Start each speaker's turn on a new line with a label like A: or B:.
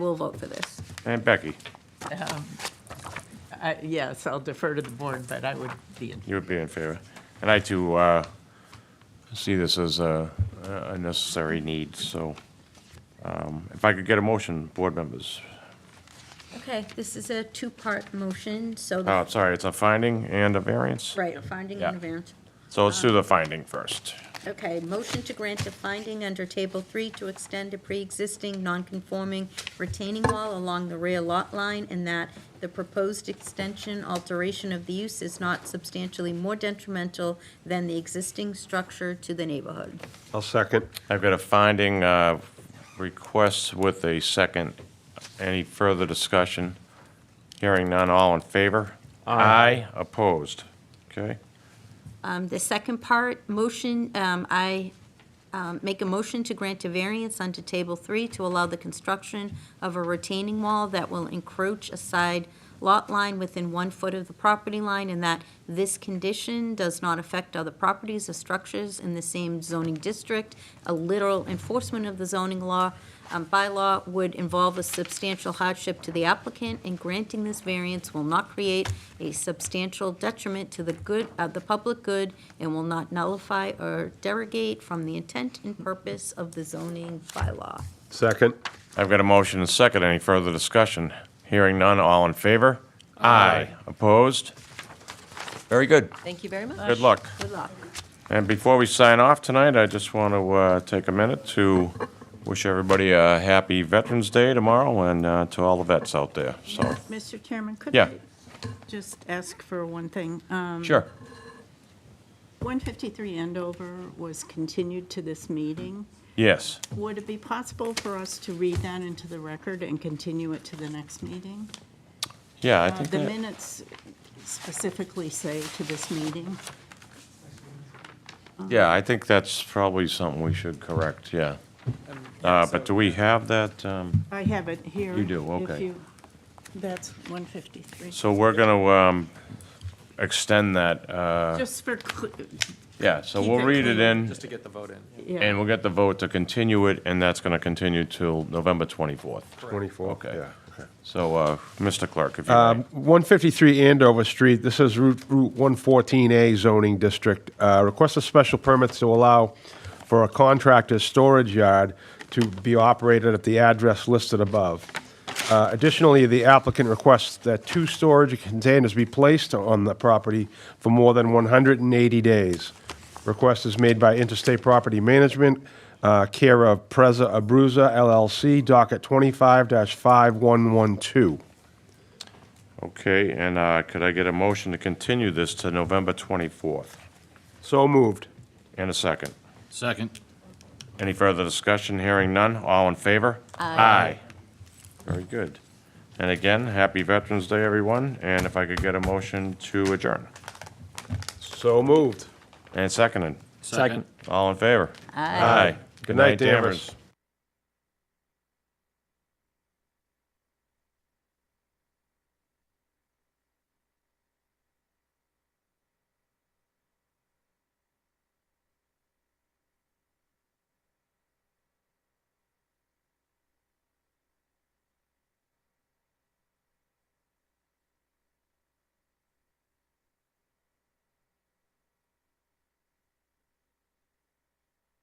A: we'll vote for this.
B: And Becky,
C: I- Yes, I'll defer to the board, but I would be, in-
B: you would be in favor. And I too uh, see this as a a necessary need, so um, if I could get a motion, board members.
A: Okay, this is a two-part motion, so, the-
B: Oh, sorry, it's a finding and a variance?
A: right, a finding
B: Yeah.
A: and a variance.
B: So let's do the finding first.
A: Okay, motion to grant a finding under Table 3 to extend a pre-existing non-conforming retaining wall along the rear lot line, and that the proposed extension alteration of the use is not substantially more detrimental than the existing structure to the neighborhood.
D: I'll second.
B: I've got a finding uh, request with a second. Any further discussion? Hearing none, all in favor? Aye. Opposed? Okay.
A: Um, The second part, motion, um, I um, make a motion to grant a variance under Table 3 to allow the construction of a retaining wall that will encroach a side lot line within one foot of the property line, and that this condition does not affect other properties or structures in the same zoning district. A literal enforcement of the zoning law, um, bylaw would involve a substantial hardship to the applicant, and granting this variance will not create a substantial detriment to the good, uh, the public good, and will not nullify or derogate from the intent and purpose of the zoning bylaw.
D: Second.
B: I've got a motion and second. Any further discussion? Hearing none, all in favor? Aye. Opposed? Very good.
E: Thank you very much.
B: Good luck.
A: Good luck.
B: And before we sign off tonight, I just want to uh, take a minute to wish everybody a happy Veterans Day tomorrow and uh, to all the vets out there, so.
F: Mr. Chairman, could
B: Yeah.
F: I just ask for one thing? Um,
B: Sure.
F: 153 Andover was continued to this meeting.
B: Yes.
F: Would it be possible for us to read that into the record and continue it to the next meeting?
B: Yeah, I
F: Uh,
B: think
F: The
B: that,
F: minutes specifically say to this meeting.
B: yeah, I think that's probably something we should correct, yeah. Uh, But do we have that? um,
F: I have it here.
B: You do,
F: if
B: okay.
F: you- That's 153.
B: So we're going to extend that, uh,
F: Just for, cl-
B: yeah, so
F: Keep
B: we'll
F: it
B: read it in.
F: clean,
G: to get the vote in.
B: And
F: yeah,
B: we'll get the vote to continue it, and that's going to continue till November 24th.
D: 24.
B: Okay.
D: Yeah, okay.
B: So, uh, Mr. Clerk, if you
D: Um,
B: may.
D: 153 Andover Street, this is Route Route 114A zoning district. Uh, Request a special permit to allow for a contractor's storage yard to be operated at the address listed above. Uh, Additionally, the applicant requests that two storage containers be placed on the property for more than 180 days. Request is made by Interstate Property Management, uh, care of Preza Abruzza LLC, docket 25-5112.
B: Okay, and uh, could I get a motion to continue this to November 24th?
D: So moved.
B: And a second.
G: Second.
B: Any further discussion? Hearing none. All in favor? Aye. Very good. And again, happy Veterans Day, everyone, and if I could get a motion to adjourn.
D: So moved.
B: And seconded.
G: Second.
B: All in favor? Aye.
D: Good night, Danvers.